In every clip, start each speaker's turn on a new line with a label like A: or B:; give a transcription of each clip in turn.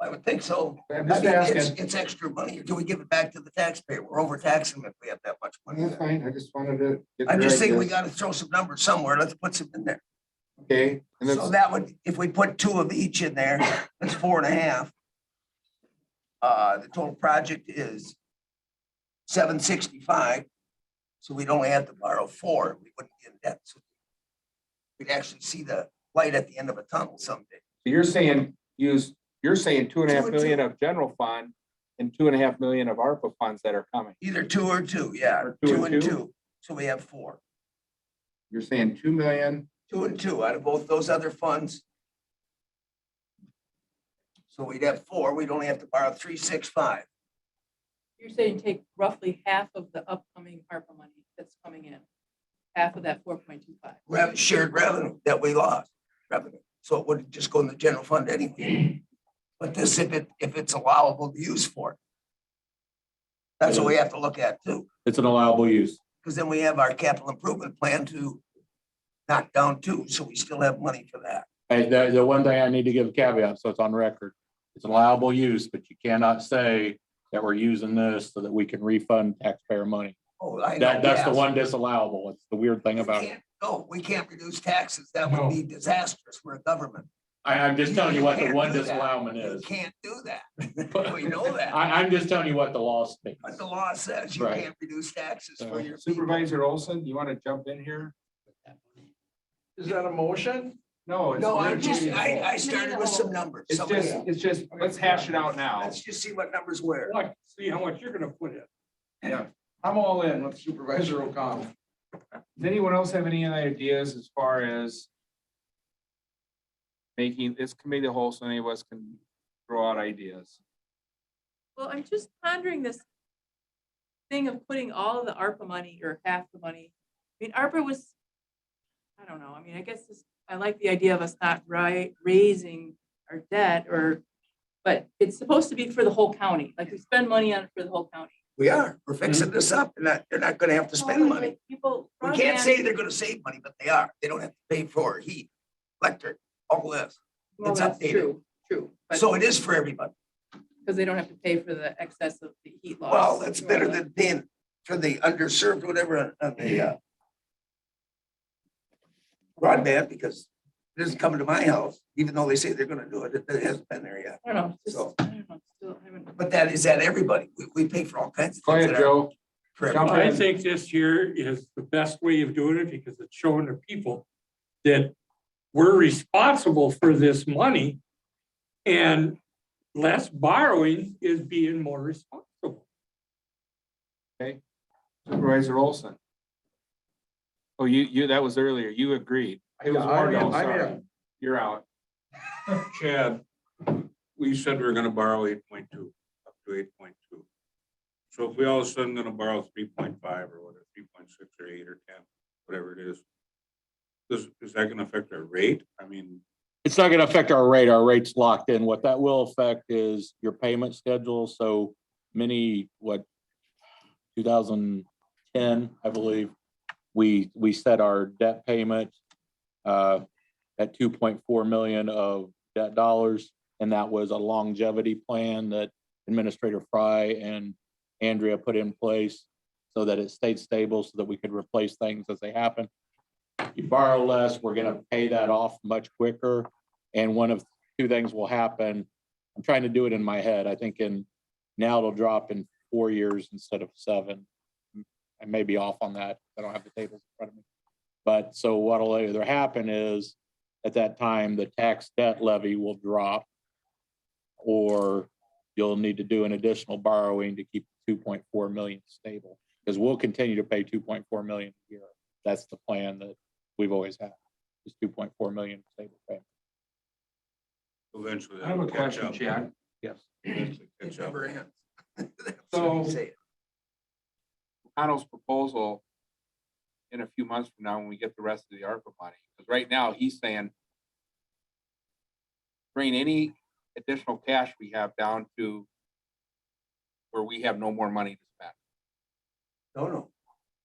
A: I would think so.
B: I'm
A: I
B: just
A: mean, it's,
B: asking,
A: it's extra money. Do we give it back to the taxpayer? We're overtaxing them if we have that much money.
B: that's fine, I just wanted to. get
A: I'm
B: your
A: just saying we
B: ideas.
A: gotta throw some numbers somewhere. Let's put some in there.
B: Okay, and
A: So
B: that's,
A: that would, if we put two of each in there, that's four and a half. Uh, the total project is seven sixty-five. So we'd only have to borrow four. We wouldn't be in debt. So We'd actually see the light at the end of a tunnel someday.
B: so you're saying, use, you're saying two and a half
A: Two and two.
B: million of general fund and two and a half million of ARPA funds that are coming.
A: Either two or two, yeah,
B: Or
A: two and two. So we have four.
B: You're saying two million,
A: two and two out of both those other funds. So we'd have four, we'd only have to borrow three, six, five.
C: You're saying take roughly half of the upcoming ARPA money that's coming in, half of that four point two five.
A: Rev, shared revenue that we lost, revenue, so it would just go in the general fund anyway. But this, if it, if it's allowable to use for it. That's what we have to look at too,
D: It's an allowable use.
A: because then we have our capital improvement plan to knock down too, so we still have money for that.
D: Hey, the, the one thing I need to give a caveat, so it's on record. It's an allowable use, but you cannot say that we're using this so that we can refund taxpayer money.
A: Oh, I know,
D: That, that's the
A: yes.
D: one disallowable. It's the weird thing
A: We
D: about it.
A: can't- No, we can't reduce taxes, that would be disastrous, we're a government.
D: I, I'm just telling you what the
A: Can't
D: one
A: do that.
D: disallowment
A: You
D: is.
A: can't do that. We know that.
D: I, I'm just telling you what the law states.
A: But the law says you
D: Right. Uh,
A: can't reduce taxes for
D: So
A: your people.
B: Supervisor Olson, you want to jump in here?
E: Is that a motion?
B: No. it's
A: No,
B: your
A: I'm just,
B: meeting.
A: I, I started with some numbers.
B: It's
A: Somebody-
B: just, it's just, let's hash it out now.
A: Let's just see what numbers were.
E: Look, see how much you're gonna put in.
B: Yeah.
E: I'm all in with Supervisor O'Connell.
B: Does anyone else have any other ideas as far as making this committee the whole, so any of us can throw out ideas?
C: Well, I'm just pondering this thing of putting all of the ARPA money or half the money. I mean, ARPA was, I don't know, I mean, I guess this, I like the idea of us not right, raising our debt or, but it's supposed to be for the whole county, like we spend money on it for the whole county. Oh,
A: We are, we're fixing
D: Mm-hmm.
A: this up and that, they're not gonna have to spend money.
C: People.
A: We can't say they're gonna save money, but they are. They don't have to pay for heat, electric, all this.
C: Well,
A: it's
C: Oh, that's
A: updated.
C: True, true. but-
A: So it is for everybody.
C: Because they don't have to pay for the excess of the heat loss.
A: Well, that's better
C: or
A: than being for the underserved, whatever, uh, the, uh, broadband, because it isn't coming to my house, even though they say they're gonna do it, it, it hasn't been there yet.
C: I don't know, just,
A: So-
C: I don't know, still haven't.
A: But that is that everybody, we, we pay for all kinds of
B: Go
A: things.
B: ahead,
A: that are
B: Joe.
A: for
B: Jump
A: everybody.
F: I
B: in.
F: think this year is the best way of doing it because it's showing the people that we're responsible for this money. And less borrowing is being more responsible.
B: Supervisor Olson. Oh, you, you, that was earlier. You agreed. It was Ward, oh, sorry. You're out.
G: Chad, we said we were gonna borrow eight point two, up to eight point two. So if we all of a sudden gonna borrow three point five or whatever, three point six or eight or ten, whatever it is. Does, is that gonna affect our rate? I mean,
D: It's not gonna affect our rate. Our rate's locked in. What that will affect is your payment schedule. So many, what, two thousand ten, I believe, we, we set our debt payment uh, at two point four million of debt dollars. And that was a longevity plan that Administrator Fry and Andrea put in place so that it stayed stable, so that we could replace things as they happen you borrow less, we're gonna pay that off much quicker. And one of two things will happen. I'm trying to do it in my head. I think in, now it'll drop in four years instead of seven. I may be off on that. I don't have the tables in front of me. But so what'll either happen is at that time, the tax debt levy will drop. Or you'll need to do an additional borrowing to keep two point four million stable. Because we'll continue to pay two point four million a year. That's the plan that we've always had, is two point four million stable payment.
G: eventually.
B: I have a
G: that'll catch
B: question,
G: up.
B: Chad.
D: Yes.
G: Eventually
A: It
G: catch up.
A: never ends. That's
B: So-
A: what I'm saying.
B: Connell's proposal in a few months from now, when we get the rest of the ARPA money, because right now he's saying bring any additional cash we have down to where we have no more money to spend.
A: No, no,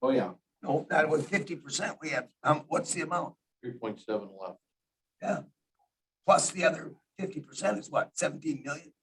B: Oh, yeah.
A: no, that was fifty percent. We have, um, what's the amount?
D: Three point seven left.
A: Plus the other fifty percent is what, seventeen million?